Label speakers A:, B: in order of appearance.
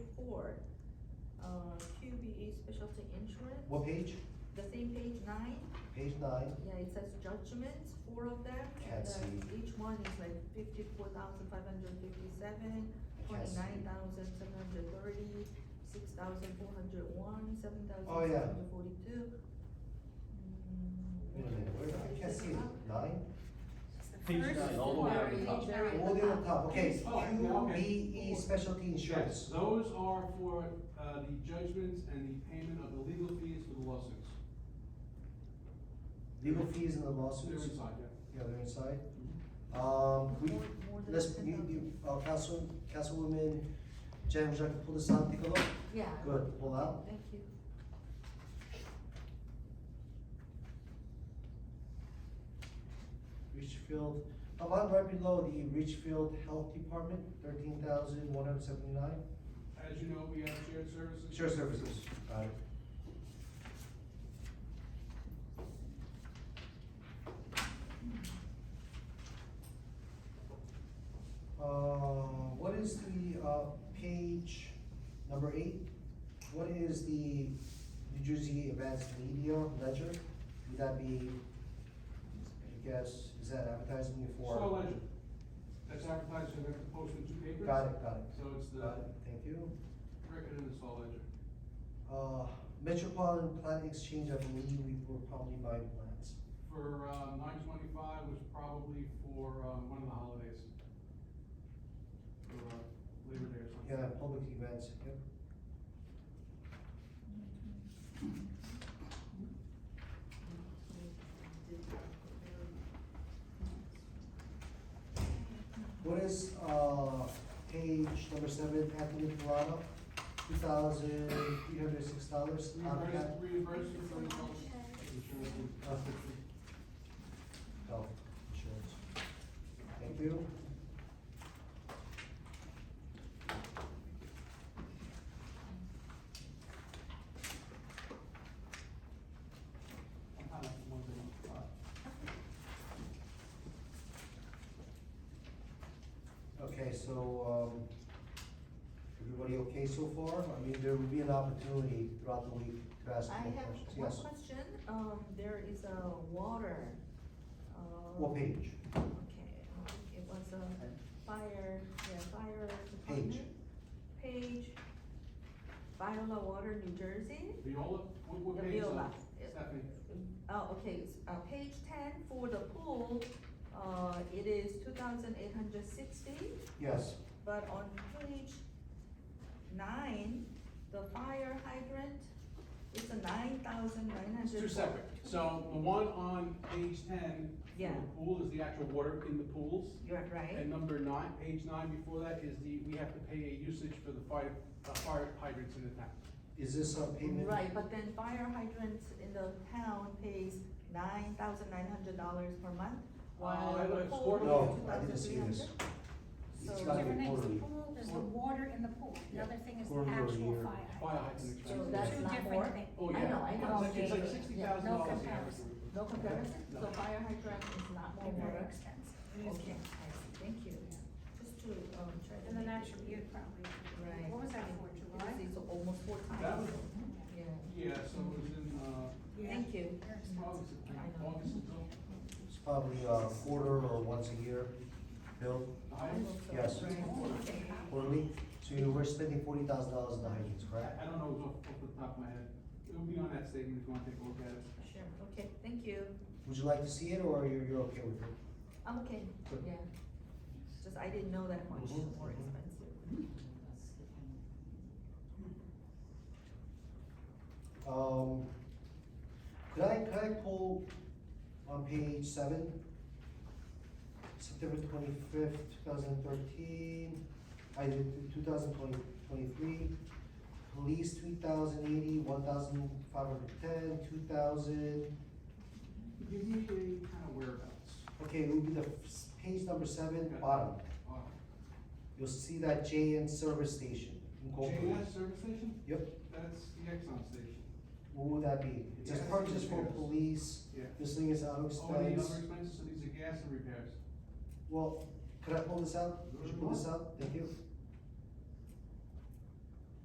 A: um, QBE Specialty Insurance.
B: What page?
A: The same page nine,
B: Page nine,
A: yeah, it says judgments, four of them, and
B: Can't
A: uh,
B: see.
A: each one is like fifty-four thousand five hundred fifty-seven,
B: I can't see.
A: twenty-nine thousand seven hundred thirty, six thousand four hundred one, seven thousand
B: Oh,
A: seven
B: yeah.
A: hundred forty-two.
B: Wait a minute, where, I can't see it, nine?
C: Page
D: First
C: nine, all the way
D: floor,
C: on the top.
D: page nine,
B: All the way on top, okay, Q
D: Page four.
B: B E Specialty
E: Yes,
B: Insurance.
E: those are for, uh, the judgments and the payment of the legal fees for the lawsuits.
B: Legal fees and the
E: They're
B: lawsuits,
E: inside, yeah.
B: yeah, they're inside. Um, we,
A: More- more than
B: let's,
A: ten
B: you, you, uh, Council, Councilwoman Jen, would you like to pull this out, take a look?
A: Yeah.
B: Good, pull out.
A: Thank you.
B: Richfield, a lot right below the Richfield Health Department, thirteen thousand one hundred seventy-nine.
E: As you know, we have shared services.
B: Shared services, got it. Uh, what is the, uh, page number eight? What is the New Jersey Advanced Media Ledger? Would that be, I guess, is that advertising for?
E: Star Ledger. That's advertised, you have to post in two papers.
B: Got it, got it.
E: So it's the
B: Got it, Thank you.
E: record and the Star Ledger.
B: Uh, Metropolitan Plant Exchange, I believe we were probably buying plants.
E: For, uh, nine twenty-five was probably for, um, one of the holidays. For, uh, Labor Day or something.
B: Yeah, public events, yep. What is, uh, page number seven, Anthony Pilano, two thousand three hundred six dollars.
E: Reimbursed, reimbursed for the health insurance.
B: Health Oh, insurance. Thank you.
E: I'm kind of wondering, uh,
B: Okay, so, um, everybody okay so far? I mean, there will be an opportunity throughout the week to ask
A: I
B: more
A: have
B: questions.
A: one
B: Yes.
A: question, um, there is a water, um.
B: What page?
A: Okay, I think it was a fire, yeah, fire department. Page, Viola Water, New Jersey.
E: Viola, what, what page is
A: Viola.
E: that? Stephanie?
A: Oh, okay, it's, uh, page ten for the pool, uh, it is two thousand eight hundred sixty.
B: Yes,
A: But on page nine, the fire hydrant, it's a nine thousand nine
E: It's
A: hundred.
E: two separate, so the one on page ten, for
A: Yeah.
E: the pool is the actual water in the pools.
A: You're right,
E: And number nine, page nine before that is the, we have to pay a usage for the fire, uh, fire hydrants in the town.
B: is this a payment?
A: right, but then fire hydrants in the town pays nine thousand nine hundred dollars per month, while
E: Uh,
A: the
E: it's
A: pool is two
E: quarterly.
B: No, I
A: thousand
B: didn't see
A: three hundred.
B: this.
A: So,
B: It's gotta be
D: Different things,
B: quarterly.
D: the pool, there's the water in the pool, the other thing is the
B: Quarterly or
D: actual
B: year.
E: Fire
D: fire
E: hydrant
D: hydrants.
A: so
E: expenses.
A: that's
D: Two
A: not
D: different
A: more,
D: things.
E: Oh,
A: I
E: yeah.
A: know, I
E: Yeah,
A: know.
E: it's like- It's like
D: Okay.
E: sixty
D: Yeah,
E: thousand
D: no
E: dollars.
D: comparison.
A: no comparison, so fire hydrant is not more
D: They're very
A: water.
D: expensive.
A: Okay, I see, thank you. Just to, um, try to.
D: And then
A: make
D: that
A: it-
D: should be it probably.
A: Right.
D: What was that for, July?
A: It's almost four times.
E: That was-
A: Yeah,
E: Yeah, so it was in, uh,
D: Yeah.
A: thank you.
D: They're expensive.
E: August,
A: I know.
E: August until,
B: It's probably a quarter or once a year bill,
E: the
A: I
E: hydrants?
A: hope so.
B: Yes.
A: Right.
D: Okay.
B: quarterly. So you were spending forty thousand dollars on the hydrants,
E: I,
B: correct?
E: I don't know off, off the top of my head, it'll be on that statement if you wanna take a look at it.
A: Sure, okay, thank you.
B: Would you like to see it or you're, you're okay with it?
A: I'm okay,
B: Good.
A: yeah. Just I didn't know that much
E: Mm-hmm.
B: Mhm.
A: more expensive.
B: Um, could I, could I pull on page seven? September twenty-fifth, two thousand thirteen, I did two thousand twenty, twenty-three. Police, three thousand eighty, one thousand five hundred ten, two thousand,
E: Give me a kind of whereabouts.
B: okay, it would be the f- page number seven, bottom.
E: Uh,
B: You'll see that J N service station in Goldbrook.
E: JNS service station?
B: Yep,
E: That's the Exxon station.
B: what would that be? It says
E: Gas and
B: purchase for
E: repairs.
B: police,
E: Yeah.
B: this thing is out of
E: Oh, and the
B: expense.
E: other expenses, so these are gas and repairs.
B: Well, could I pull this out? Could you pull this out? Thank you.